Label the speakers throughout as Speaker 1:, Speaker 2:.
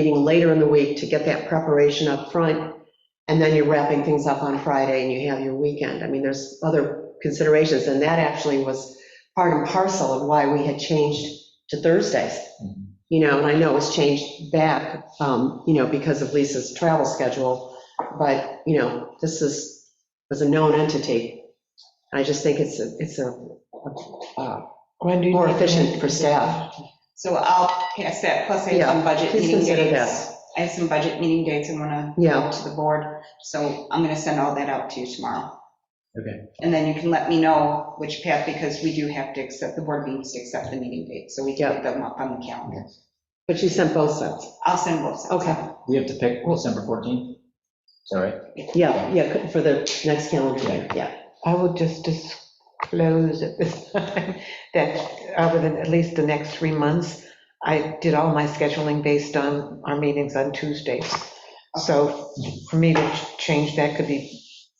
Speaker 1: meeting later in the week to get that preparation up front, and then you're wrapping things up on Friday and you have your weekend. I mean, there's other considerations, and that actually was part and parcel of why we had changed to Thursdays.
Speaker 2: Mhm.
Speaker 1: You know, and I know it was changed back, um, you know, because of Lisa's travel schedule, but, you know, this is, was a known entity. I just think it's, a it's a uh,
Speaker 3: When do you
Speaker 1: more
Speaker 3: think-
Speaker 1: efficient for staff.
Speaker 4: So I'll pass that, plus I have
Speaker 1: Yeah,
Speaker 4: some budget
Speaker 1: please
Speaker 4: meeting
Speaker 1: consider
Speaker 4: dates. I have some budget meeting dates I want to
Speaker 1: Yeah.
Speaker 4: go to the board, so I'm going to send all that out to you tomorrow.
Speaker 2: Okay.
Speaker 4: And then you can let me know which path, because we do have to accept, the board needs to accept the meeting date, so we can
Speaker 1: Yeah.
Speaker 4: get them up on the calendar.
Speaker 1: But you sent both sets.
Speaker 4: I'll send both sets.
Speaker 1: Okay.
Speaker 2: We have to pick December 14th? Sorry.
Speaker 1: Yeah, yeah, for the next calendar year, yeah.
Speaker 3: I will just disclose at this time that over the, at least the next three months, I did all my scheduling based on our meetings on Tuesdays. So for me to change that could be,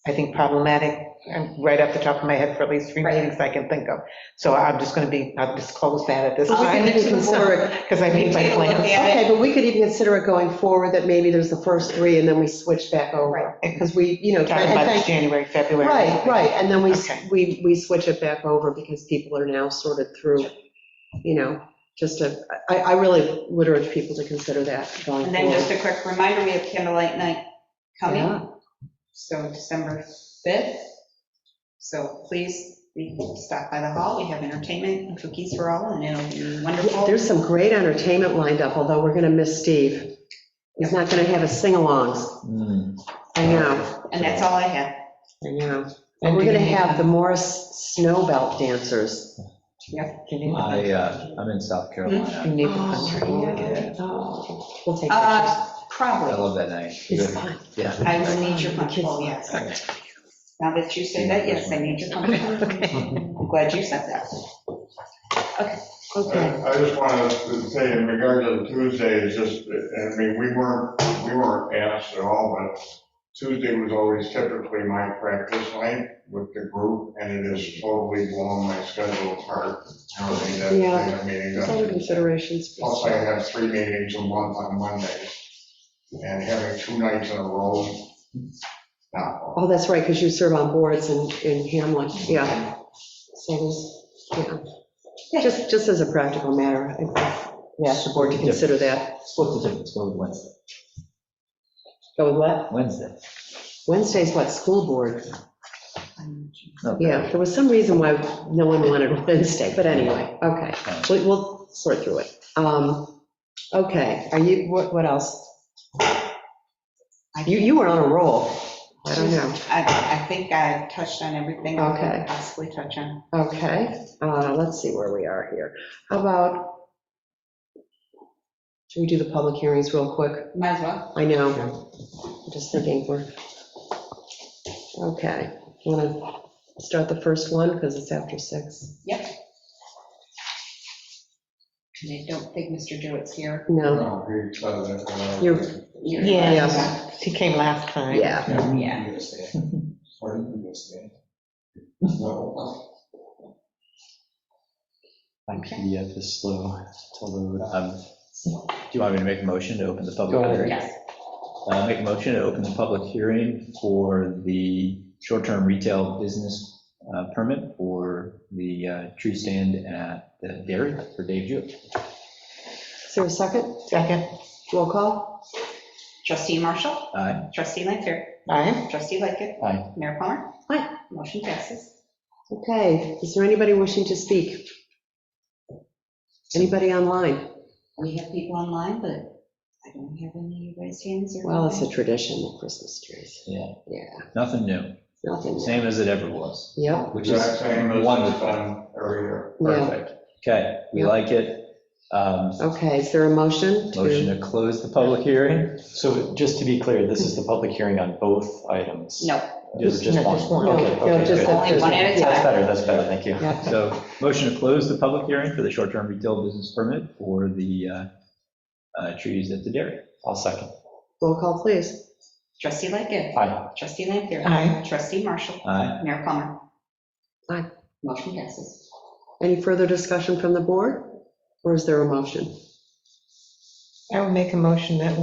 Speaker 3: I think, problematic, and right off the top of my head for at least three
Speaker 4: Right.
Speaker 3: meetings I can think of. So I'm just going to be, I'll disclose that at this
Speaker 4: But we can
Speaker 3: time.
Speaker 4: get to the board.
Speaker 3: Because I made my
Speaker 4: Take a look
Speaker 3: plans.
Speaker 4: at it.
Speaker 1: Okay, but we could even consider it going forward, that maybe there's the first three, and then we switch back over. Because we, you know,
Speaker 3: Talking
Speaker 1: and
Speaker 3: about
Speaker 1: thank-
Speaker 3: January, February.
Speaker 1: right, right, and then we, s-
Speaker 3: Okay.
Speaker 1: we, we switch it back over because people are now sorted through, you know, just to, I, I really would urge people to consider that going
Speaker 4: And then just
Speaker 1: forward.
Speaker 4: a quick reminder, we have candlelight night coming,
Speaker 1: Yeah.
Speaker 4: so December 5th. So please, we stop by the hall, we have entertainment and cookies for all, and it'll be
Speaker 1: Yeah,
Speaker 4: wonderful.
Speaker 1: There's some great entertainment lined up, although we're gonna miss Steve. He's not gonna have his sing-alongs.
Speaker 2: Hmm,
Speaker 1: I know,
Speaker 4: And that's all I have.
Speaker 1: I know.
Speaker 3: And
Speaker 1: We're
Speaker 3: do you
Speaker 1: gonna
Speaker 3: need-
Speaker 1: have the Morris Snowbelt dancers.
Speaker 3: do you need-
Speaker 2: I, uh, I'm in South
Speaker 3: You
Speaker 1: Hmm.
Speaker 2: Carolina.
Speaker 3: need the country.
Speaker 2: yeah.
Speaker 1: Oh, We'll take pictures.
Speaker 4: Uh,
Speaker 2: I
Speaker 4: Probably.
Speaker 2: love that night.
Speaker 1: It's fine.
Speaker 2: Yeah.
Speaker 4: I will need your control, yes. Now that you say that, yes, I need your control. I'm glad you said that.
Speaker 5: I
Speaker 1: Okay.
Speaker 5: I just wanted to say in regard to Tuesday, it's just, I mean, we weren't, we weren't asked at all, but Tuesday was always typically my practice night with the group, and it has totally blown my schedule apart. I don't think that's
Speaker 1: Yeah.
Speaker 5: been a meeting.
Speaker 1: There's other considerations.
Speaker 5: Plus, I have three meetings a month on Mondays, and having two nights in a row, no.
Speaker 1: Oh, that's right, because you serve on boards in, in Hamlin, yeah. So there's, yeah, just, just as a practical matter, I we ask the board to consider that.
Speaker 2: What's the difference? Go with Wednesday.
Speaker 1: Go with what?
Speaker 2: Wednesday.
Speaker 1: Wednesday's what, school board?
Speaker 2: No,
Speaker 1: Yeah, there was some reason why no one wanted Wednesday, but anyway, okay. We- We'll sort through it. Um, Okay, are you, what, what else? You, you were on a roll. I don't know.
Speaker 4: I, I think I touched on everything I
Speaker 1: Okay.
Speaker 4: could possibly touch on.
Speaker 1: Okay, uh, let's see where we are here. How about, should we do the public hearings real quick?
Speaker 4: Might as well.
Speaker 1: I know, I'm just thinking we're, okay. Want to start the first one because it's after six?
Speaker 4: Yep. And I don't think Mr. Dewitt's here.
Speaker 1: No,
Speaker 5: No, we said that, uh,
Speaker 1: You're-
Speaker 3: Yeah, he came last time.
Speaker 1: yeah,
Speaker 4: Yeah.
Speaker 5: Or you just did. No.
Speaker 6: My PDF is slow, it's all over.
Speaker 2: Um, Do you want me to make a motion to open the
Speaker 6: Go
Speaker 2: public
Speaker 6: ahead.
Speaker 2: hearing?
Speaker 4: Yes.
Speaker 2: Uh, Make a motion to open the public hearing for the short-term retail business uh, permit for the uh, tree stand at the dairy for Dave Jewett.
Speaker 1: is there a second?
Speaker 3: Second,
Speaker 1: Roll call?
Speaker 4: Trustee Marshall,
Speaker 2: Aye.
Speaker 4: trustee Lanfair,
Speaker 3: aye,
Speaker 4: trustee Lightfoot.
Speaker 2: Aye.
Speaker 4: Mayor Plummer.
Speaker 1: Aye.
Speaker 4: Motion passes.
Speaker 1: Okay, is there anybody wishing to speak? Anybody online?
Speaker 4: We have people online, but I don't have any raised hands or.
Speaker 1: Well, it's a tradition, the Christmas trees.
Speaker 2: Yeah.
Speaker 1: Yeah,
Speaker 2: Nothing new,
Speaker 1: nothing.
Speaker 2: same as it ever was,
Speaker 1: Yep.
Speaker 2: which is
Speaker 5: Exact same as it's
Speaker 2: wonderful.
Speaker 5: done every year.
Speaker 1: Yeah.
Speaker 2: Perfect. Okay, we
Speaker 1: Yeah.
Speaker 2: like it. Um,
Speaker 1: Okay, is there a motion? to-
Speaker 2: Motion to close the public hearing?
Speaker 6: So just to be clear, this is the public hearing on both items?
Speaker 4: No,
Speaker 6: Just just
Speaker 3: No,
Speaker 6: one?
Speaker 3: just one.
Speaker 1: No,
Speaker 6: Okay,
Speaker 1: no,
Speaker 6: okay,
Speaker 1: just
Speaker 6: good.
Speaker 1: the-
Speaker 4: only one at a
Speaker 6: That's
Speaker 4: time.
Speaker 6: better, that's better, thank you.
Speaker 1: Yeah.
Speaker 2: So motion to close the public hearing for the short-term retail business permit for the uh, uh, trees at the dairy.
Speaker 6: I'll second.
Speaker 1: Roll call, please.
Speaker 4: Trustee Lightfoot,
Speaker 6: Aye.
Speaker 4: trustee Lanfair.
Speaker 3: Aye.
Speaker 4: Trustee Marshall,
Speaker 2: Aye.
Speaker 4: Mayor Plummer.
Speaker 1: Aye.
Speaker 4: Motion passes.
Speaker 1: Any further discussion from the board, or is there a motion?
Speaker 3: I would make a motion that